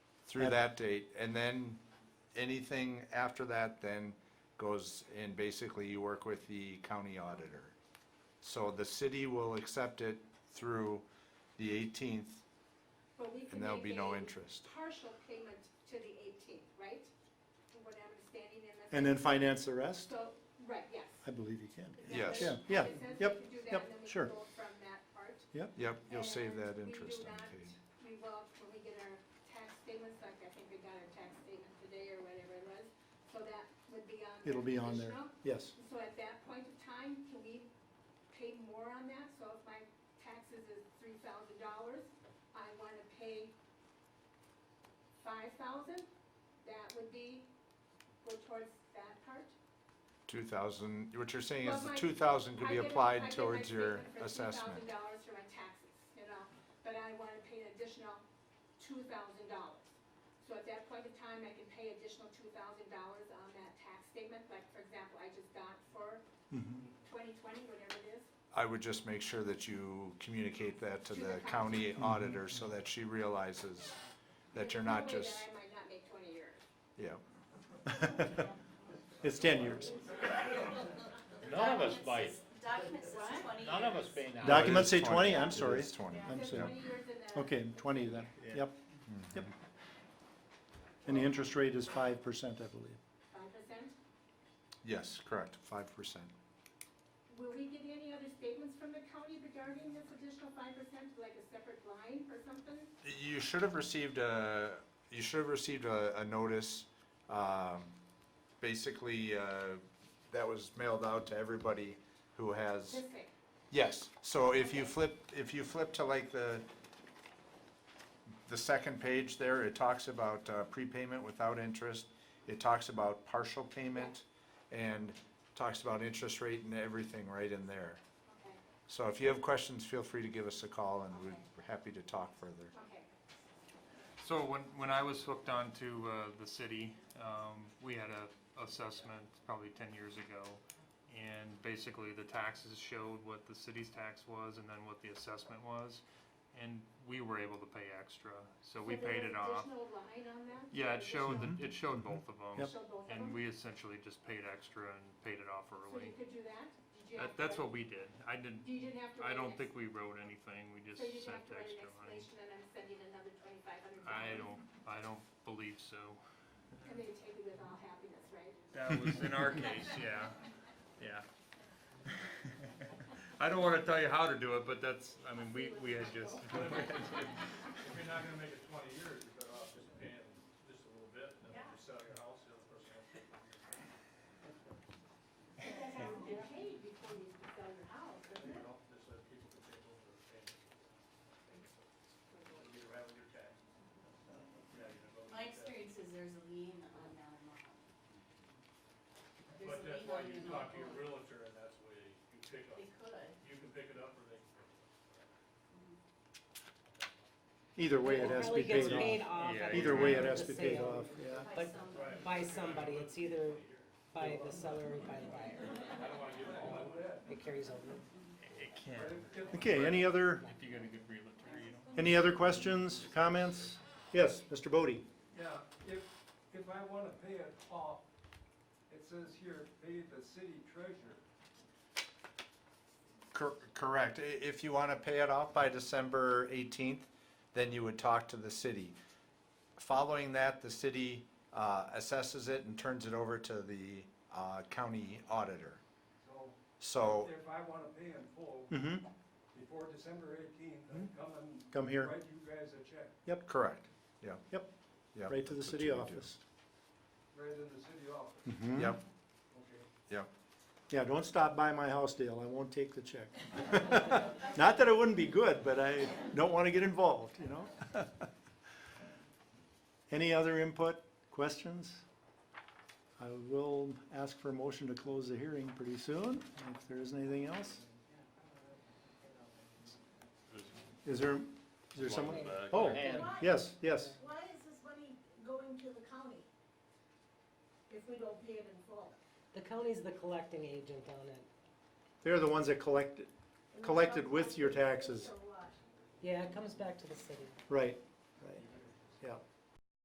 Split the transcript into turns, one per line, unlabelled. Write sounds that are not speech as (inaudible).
through that date, and then anything after that then goes, and basically you work with the county auditor. So the city will accept it through the eighteenth,
But we can
and there'll be
make
no
a
interest.
Partial payment to the eighteenth, right? From what I'm understanding in this.
And then finance the rest?
So, right, yes.
I believe you can.
Is that
Yes.
what it-
Yeah, yeah,
it says we
yep,
can do that,
yep,
and then we can
sure.
go From that part.
Yep, you'll save
And
that
we do
interest on
not-
Kate.
We will, when we get our tax statements, like I think we got our tax statement today or whatever it was, so that would be on.
It'll be on there,
additional.
yes.
So at that point of time, can we pay more on that? So if my taxes is three thousand dollars, I wanna pay five thousand, that would be, go towards that part?
Two thousand, what you're saying is the
Well, my-
two thousand could
I
be
get a- I
applied
get my
towards your
statement for
assessment.
$2,000 for my taxes, you know, but I wanna pay an additional two thousand dollars. So at that point in time, I can pay additional two thousand dollars on that tax statement, like, for example, I just got for
Mhm.
twenty twenty, whatever it is.
I would just make sure that you communicate that to
To
the
the
county
county.
auditor so that she realizes that you're not
There's
just,
no way that I might not make twenty years.
yeah.
(laughs) It's ten years.
None of us bite,
Documents says- Documents says
What?
twenty
none of us
years.
pay now.
No, it
Documents
is
say 20, I'm
It
sorry.
is twenty.
Yeah,
I'm
it says
sorry.
20 years in the-
Okay, twenty then,
Yeah.
yep, yep. And the interest rate is five percent, I believe.
Five percent.
Yes, correct, five percent.
Will we get any other statements from the county regarding this additional five percent, like a separate line or something?
You should have received a, you should have received a, a notice, um, basically, uh, that was mailed out to everybody who has,
This thing,
yes. So if you flip, if you flip to like the, the second page there, it talks about uh, prepayment without interest. It talks about partial payment and talks about interest rate and everything right in there.
okay,
So if you have questions, feel free to give us a call and we're happy to talk further.
okay.
So when, when I was hooked on to uh, the city, um, we had a assessment probably ten years ago. And basically the taxes showed what the city's tax was and then what the assessment was. And we were able to pay extra, so we
So there's
paid it off.
Additional line on that?
Yeah, it showed,
Additional-
the- it showed both of them.
Showed both of them?
And we essentially just paid extra and paid it off
So
early.
you could do that? Did you have
That,
to
that's
write-
what we did. I didn't,
You didn't have to write
I
an
don't
ex-
think we wrote anything, we just
So you didn't
sent
have to write an
extra money.
explanation and I'm sending another twenty-five hundred
I
dollars?
don't, I don't believe so.
And they take it with all happiness, right?
That was in our case, yeah, yeah. (laughs) I don't wanna tell you how to do it, but that's, I mean, we, we had just,
If you're not gonna make it twenty years, you're better off just paying just a little bit, and then you sell your house, the other person else. will pay for it.
But that has to be paid before you sell your house, doesn't
You
it?
know, just let people can take over the payment. And You're having your tax. Yeah, you're gonna go with
My
your tax.
experience is there's a lien on that amount. There's
But
a
that's
lien
why
on
you
the
talk to your
amount.
realtor, and that's where you pick up,
They could.
you can pick it up or they can pick it up.
Either way, it has to be
gets
paid
paid
off.
off.
Yeah,
at the
Either way, it
time
has
of the
to be paid
sale
off, yeah.
By
But-
some,
By somebody, it's either by the seller or by the buyer. It carries over.
it can,
Okay, any other,
if you got a good realtor, you know.
any other questions, comments? Yes, Mr. Bodie?
Yeah, if, if I wanna pay it off, it says here, pay the city treasurer.
Cor- Correct. I- If you want to pay it off by December 18th, then you would talk to the city. Following that, the city uh, assesses it and turns it over to the uh, county auditor.
So
So,
if I wanna pay in full
Mm-hmm.
before December eighteenth, I'm coming.
Come here.
Write you guys a check,
correct, yeah.
Yep.
Yep,
Right to the
that's what
city
you would do.
office.
right in the city office,
Yep,
okay?
yep.
Yeah, don't stop by my house, Dale, I won't take the check. (laughs) Not that it wouldn't be good, but I don't wanna get involved, you know? (laughs) Any other input, questions? I will ask for a motion to close the hearing pretty soon, if there isn't anything else. Is there, is there someone? Oh,
And-
yes, yes.
Why is this money going to the county if we don't pay it in full?
The county's the collecting agent on it.
They're the ones that collected, collected with your taxes.
So what?
Yeah, it comes back to the city.
Right, right, yeah.